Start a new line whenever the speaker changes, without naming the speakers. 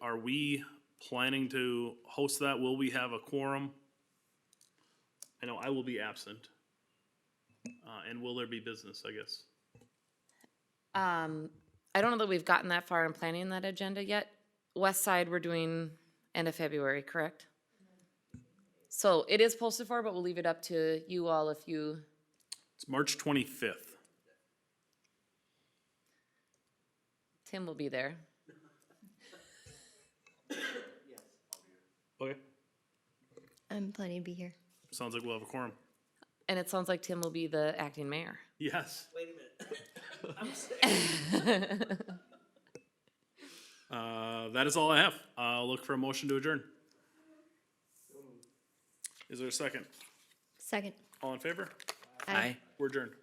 are we planning to host that? Will we have a quorum? I know I will be absent. Uh, and will there be business, I guess?
Um, I don't know that we've gotten that far in planning that agenda yet. West Side, we're doing end of February, correct? So it is posted for, but we'll leave it up to you all if you,
It's March twenty-fifth.
Tim will be there.
Okay.
I'm planning to be here.
Sounds like we'll have a quorum.
And it sounds like Tim will be the acting mayor.
Yes.
Wait a minute.
Uh, that is all I have. I'll look for a motion to adjourn. Is there a second?
Second.
All in favor?
Aye.
We're adjourned.